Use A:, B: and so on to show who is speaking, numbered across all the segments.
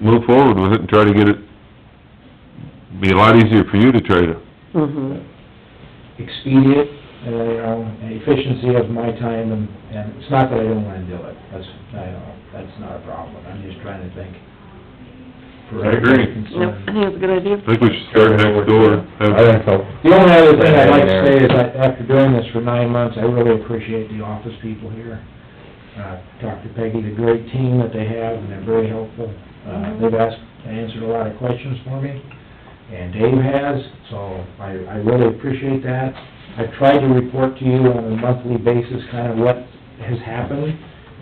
A: move forward with it and try to get it, be a lot easier for you to try to,
B: Mm-hmm.
C: expedient, uh, you know, and efficiency of my time, and, and it's not that I don't wanna do it, that's, I don't, that's not a problem, I'm just trying to think. for
A: I agree.
C: everybody's
B: No,
C: concern.
B: I think it's a good idea.
A: I think we should start next door. have-
D: I think so.
C: The only other thing I'd like to say is that after doing this for nine months, I really appreciate the office people here. Uh, Talked to Peggy, the great team that they have, and they're very helpful. Uh, they've asked, answered a lot of questions for me, and Dave has, so I, I really appreciate that. I've tried to report to you on a monthly basis kind of what has happened,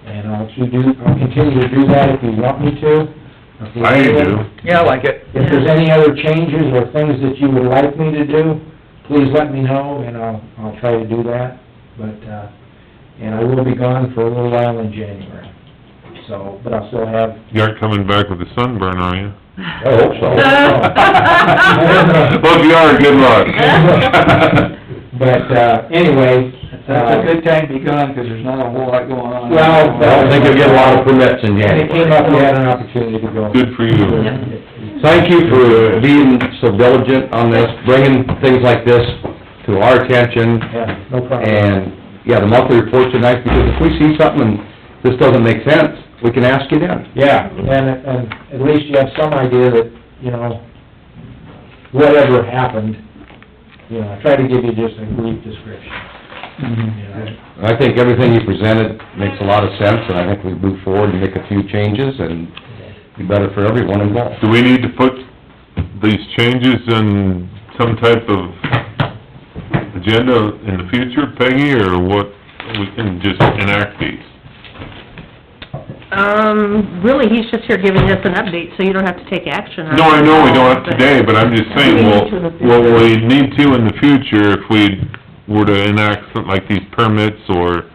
C: and I'll to do, I'll continue to do that if you want me to.
A: I do.
E: Yeah, I like it.
C: If there's any other changes or things that you would like me to do, please let me know, and I'll, I'll try to do that. But, uh, and I will be gone for a little while in January, so, but I'll still have,
A: You aren't coming back with a sunburn, are you?
D: I hope so.
A: Well, if you are, good luck.
C: but, uh, anyway.
E: That's a
C: uh,
E: good time to be gone, 'cause there's not a whole lot going on.
C: Well,
D: I don't think you'll get a lot of permits in
C: When it came
D: January.
C: up, we had an opportunity to go.
A: Good for you.
D: Thank you for being so diligent on this, bringing things like this to our attention.
C: Yeah, no problem.
D: And, yeah, the monthly reports are nice, because if we see something and this doesn't make sense, we can ask you then.
C: Yeah, and, and at least you have some idea that, you know, whatever happened, you know, I try to give you just a brief description,
E: Mm-hmm.
C: you know.
D: And I think everything you presented makes a lot of sense, and I think we move forward and make a few changes, and be better for everyone involved.
A: Do we need to put these changes in some type of agenda in the future, Peggy, or what, we can just enact these?
B: Um, really, he's just here giving us an update, so you don't have to take action on it.
A: No, I know we don't have today, but I'm just saying, well, what we need to in the future if we were to enact something like these permits or,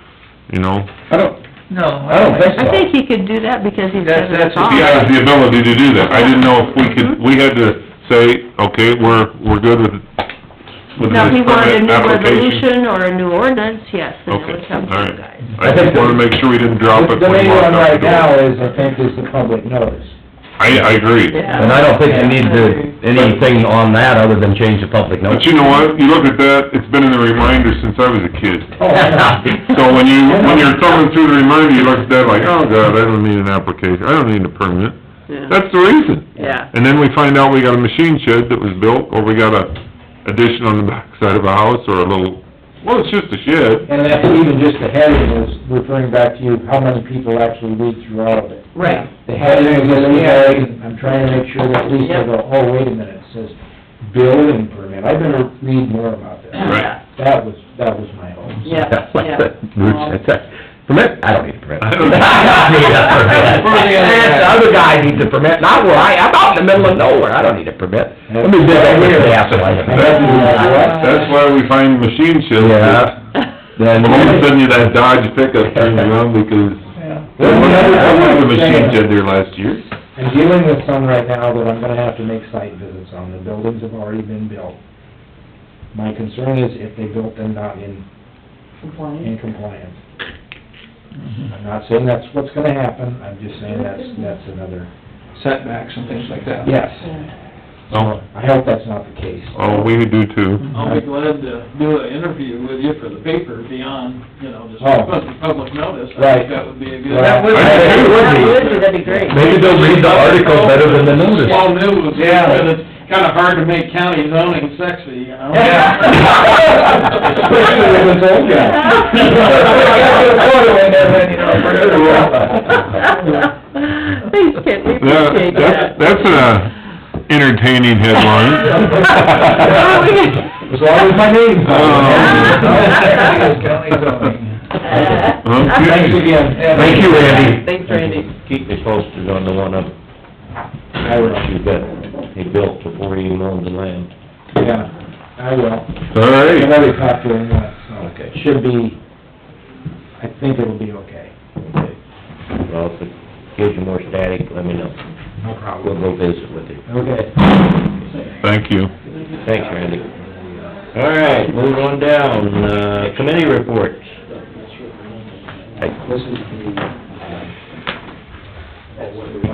A: you know,
D: I don't,
E: No.
D: I don't think so.
B: I think he could do that because he's
E: That's-
B: got it
E: that's-
B: all.
A: he has the ability to do that. I didn't know if we
B: Mm-hmm.
A: could, we had to say, okay, we're, we're good with, with
B: Now, if he
A: this
B: wanted a
A: permit
B: new
A: application.
B: resolution or a new ordinance, yes, then it
A: Okay,
B: would come to
A: all
B: you
A: right.
B: guys.
A: I just wanna make sure we didn't drop it
C: The
A: when we
C: main
A: walked
C: one
A: out
C: right
A: the
C: now
A: door.
C: is, I think, is the public notice.
A: I, I agree.
B: Yeah.
D: And I don't think you need to, anything on that other than change the public
A: But
D: notice.
A: you know what? You look at that, it's been in the reminder since I was a kid.
C: Oh, yeah.
A: So when you, when you're thumbing through the reminder, you look at that like, oh god, I don't need an application, I don't need a permit.
B: Yeah.
A: That's the reason.
B: Yeah.
A: And then we find out we got a machine shed that was built, or we got a addition on the backside of a house, or a little, well, it's just a shed.
C: And that's even just the heading is referring back to you, how many people actually read through all of it.
B: Right.
C: The heading is in there, and I'm trying to make sure that at least I go, oh, wait a minute, it says building permit, I better read more about this.
A: Right.
C: That was, that was my hope.
B: Yeah, yeah. Um,
D: Bruce, that's a permit, I don't need a permit.
A: I
D: I
A: don't-
D: need a permit.
E: Where are the other guys?
D: The other guy needs a permit, not where I, I'm out in the middle of nowhere, I don't need a permit. Let me dig over here, asshole.
C: Yeah.
A: That's why we find machine sheds. that-
D: Then,
A: I'm gonna send you that Dodge pickup turned around because there was another, there was a machine shed there last year.
C: I'm dealing with some right now that I'm gonna have to make site visits on, the buildings have already been built. My concern is if they built them not in, in compliance. I'm not saying that's what's gonna happen, I'm just saying that's, that's another,
E: Setbacks and things like that.
C: yes.
A: Oh,
C: I hope that's not the case.
A: oh, we do too.
F: I'll be glad to do an interview with you for the paper beyond, you know, just
C: Oh.
F: public, public notice. I
C: Right.
F: think that would be a good.
C: That would-
D: That would
B: be, that'd be great.
D: maybe they'll read the article better than the notice.
F: Small news,
C: Yeah.
F: but it's kinda hard to make county zoning sexy, you know?
C: Especially with this old guy.
B: Thanks, Kent, we
A: That,
B: appreciate
A: that's,
B: that.
A: that's an entertaining headline.
C: As long as my name's
A: Oh. Okay.
C: Thanks again.
D: Thank you, Randy.
B: Thanks, Randy.
D: Keep me posted on the one up,
C: I will,
D: that he built before he even owned the land.
C: yeah, I will.
A: All
C: I've
A: right.
C: already talked to him, once, so
D: Okay.
C: it should be, I think it'll be okay.
D: Well, if it gives you more static, let me know.
C: No
D: We'll go visit with you.
C: Okay.
A: Thank you.
D: Thanks, Randy. All right, moving on down, uh, committee reports. Hey,
C: This is the, uh, that's the